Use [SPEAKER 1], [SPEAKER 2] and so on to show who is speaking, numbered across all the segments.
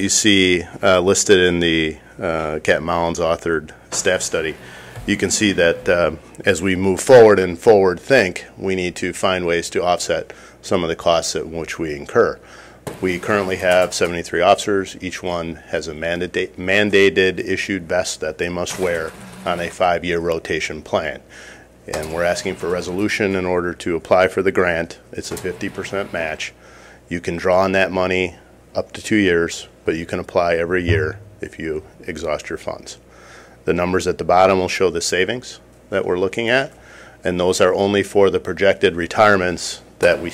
[SPEAKER 1] you see uh, listed in the uh, Cat Mounds authored staff study, you can see that uh, as we move forward and forward think, we need to find ways to offset some of the costs at which we incur. We currently have 73 officers. Each one has a mandate, mandated issued vest that they must wear on a five-year rotation plan. And we're asking for resolution in order to apply for the grant. It's a 50% match. You can draw on that money up to two years, but you can apply every year if you exhaust your funds. The numbers at the bottom will show the savings that we're looking at, and those are only for the projected retirements that we,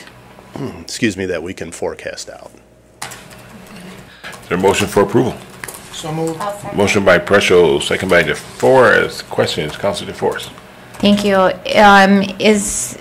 [SPEAKER 1] excuse me, that we can forecast out.
[SPEAKER 2] Is there a motion for approval?
[SPEAKER 3] So moved.
[SPEAKER 4] I'll second.
[SPEAKER 2] Motion by Preschel, second by DeForest. Questions, Counselor DeForest?
[SPEAKER 4] Thank you. Um, is,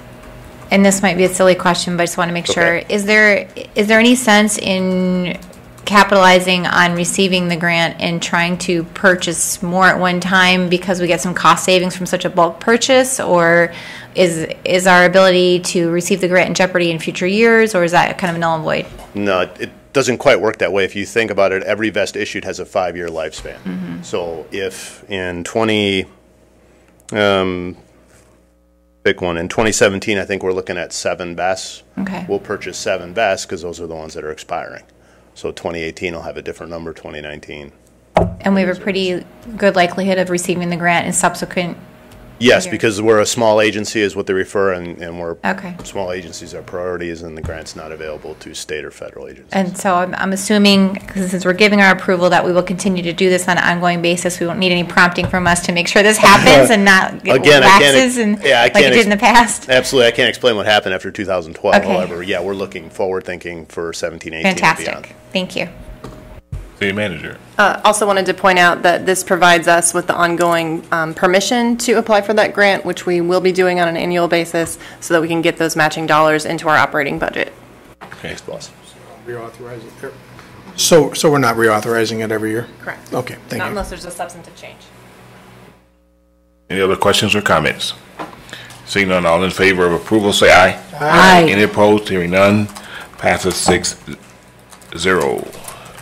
[SPEAKER 4] and this might be a silly question, but I just want to make sure.
[SPEAKER 1] Okay.
[SPEAKER 4] Is there, is there any sense in capitalizing on receiving the grant and trying to purchase more at one time because we get some cost savings from such a bulk purchase? Or is, is our ability to receive the grant in jeopardy in future years, or is that kind of null and void?
[SPEAKER 1] No, it- it doesn't quite work that way. If you think about it, every vest issued has a five-year lifespan. So if in 20, um, pick one, in 2017, I think we're looking at seven vests.
[SPEAKER 4] Okay.
[SPEAKER 1] We'll purchase seven vests because those are the ones that are expiring. So 2018 will have a different number, 2019.
[SPEAKER 4] And we have a pretty good likelihood of receiving the grant in subsequent,
[SPEAKER 1] Yes,
[SPEAKER 4] Here.
[SPEAKER 1] because we're a small agency is what they refer and, and we're.
[SPEAKER 4] Okay.
[SPEAKER 1] Small agencies are priorities and the grant's not available to state or federal agencies.
[SPEAKER 4] And so I'm, I'm assuming, 'cause since we're giving our approval, that we will continue to do this on an ongoing basis. We won't need any prompting from us to make sure this happens and not get
[SPEAKER 1] Again, I can't ex-
[SPEAKER 4] lapses and
[SPEAKER 1] yeah, I
[SPEAKER 4] like
[SPEAKER 1] can't
[SPEAKER 4] it
[SPEAKER 1] ex-
[SPEAKER 4] did in the past.
[SPEAKER 1] Absolutely. I can't explain what happened after 2012.
[SPEAKER 4] Okay.
[SPEAKER 1] However, yeah, we're looking forward thinking for 17, 18 and
[SPEAKER 4] Fantastic.
[SPEAKER 1] beyond.
[SPEAKER 4] Thank you.
[SPEAKER 2] City Manager.
[SPEAKER 5] Uh, Also wanted to point out that this provides us with the ongoing um, permission to apply for that grant, which we will be doing on an annual basis, so that we can get those matching dollars into our operating budget.
[SPEAKER 2] Okay.
[SPEAKER 1] Boss.
[SPEAKER 3] Reauthorize it. So, so we're not reauthorizing it every year?
[SPEAKER 5] Correct.
[SPEAKER 3] Okay, thank
[SPEAKER 5] Not
[SPEAKER 3] you.
[SPEAKER 5] unless there's a substantive change.
[SPEAKER 2] Any other questions or comments? Seeing none, all in favor of approval, say aye.
[SPEAKER 4] Aye.
[SPEAKER 2] Any opposed, hearing none, passes six zero.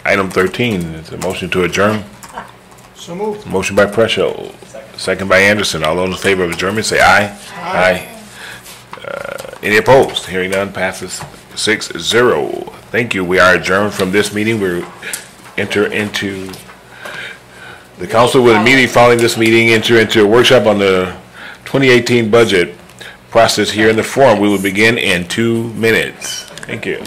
[SPEAKER 2] Item thirteen is a motion to adjourn.
[SPEAKER 3] So moved.
[SPEAKER 2] Motion by Preschel, second by Anderson. All those in favor of adjournment, say aye. Aye. Uh, Any opposed? Hearing none, passes six zero. Thank you. We are adjourned from this meeting. We enter into the council with a meeting following this meeting, enter into a workshop on the 2018 budget process here in the forum. We will begin in two minutes. Thank you.